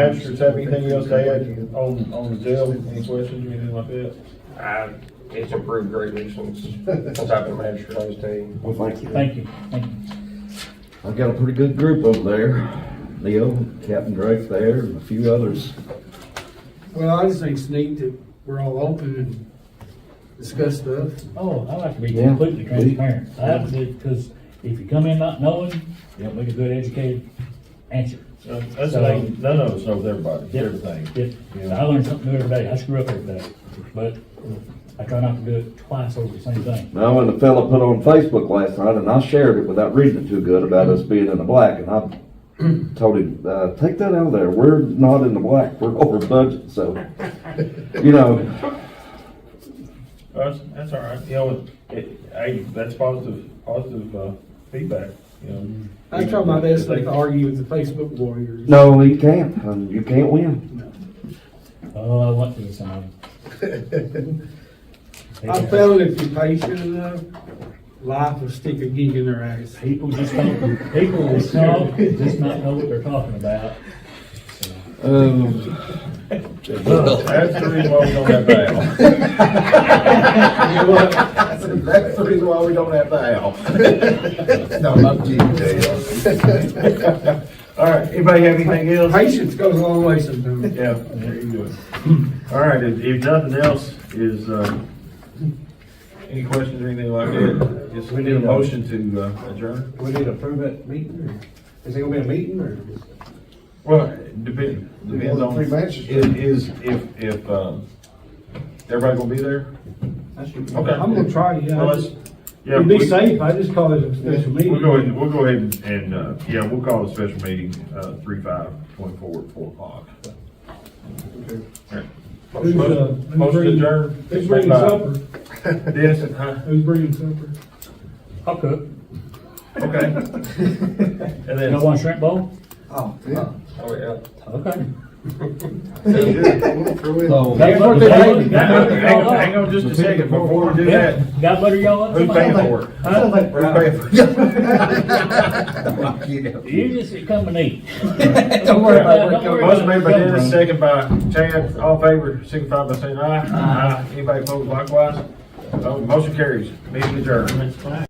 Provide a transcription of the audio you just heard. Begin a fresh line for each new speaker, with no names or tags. Magistrates have anything else to add on, on the jail, any questions, or anything like that?
I, it's improved greatly since, since I've been a manager on this team.
Well, thank you.
Thank you, thank you.
I've got a pretty good group over there. Leo, Captain Drake there, and a few others.
Well, I just think it's neat that we're all open and discuss stuff.
Oh, I like to be
Yeah.
completely transparent. I have to, because if you come in not knowing, you don't make a good educated answer.
That's, the thing, none of us knows everybody, everything.
If, I learn something new every day, I screw up every day, but I try not to do it twice over the same thing.
Now, when the fella put on Facebook last night, and I shared it without reading it too good about us being in the black, and I told him, uh, take that out of there. We're not in the black. We're over budget, so, you know,
That's, that's all right, you know, it, I, that's positive, positive, uh, feedback, you know.
I try my best not to argue with the Facebook warriors.
no, you can't. Um, You can't win.
Oh, I want to be someone.
I found if you're patient enough, life will stick a gig in their ass.
People just don't, people will talk, just not know what they're talking about.
Um,
That's the reason why we don't have bail.
That's the reason why we don't have the owl. No, I'm kidding.
All right, anybody have anything else?
Patience goes a long way sometimes.
Yeah, there you go. All right, if, if nothing else is, uh, any questions or anything like that, just we need a motion to uh, adjourn.
We need to approve that meeting, or is it gonna be a meeting, or?
Well, depend, depends on,
Three
is,
matches.
is, if, if, um, everybody gonna be there? Okay.
I'm gonna try, yeah.
Well, let's- Yeah,
To
we,
be safe, I just call it a special meeting.
we'll go ahead, and- we'll go ahead and- and, uh, yeah, we'll call a special meeting, uh, three five, twenty four, four o'clock. All right.
Who's, uh, who's
Motion to
bringing-
adjourn.
Who's bringing
Bye.
supper?
Dennis, huh?
Who's bringing supper?
I'll cook.
Okay. And
You
then,
don't want shrimp bowl?
Oh, yeah.
Oh, yeah.
Okay.
Oh,
so-
Got
what
butter-
they do.
got butter- got
hang on,
butter
hang
y'all up?
on just a second, before we do
Yeah.
that,
Got butter y'all up?
who's paying for it?
Huh?
Who's paying for it?
You just come and eat.
Don't worry about where it
Don't worry
comes.
Motion made by
Come
Dennis,
from.
second by Chad, all in favor, signify by saying aye. Aye. Anybody opposed likewise? Uh, Motion carries, meeting adjourned.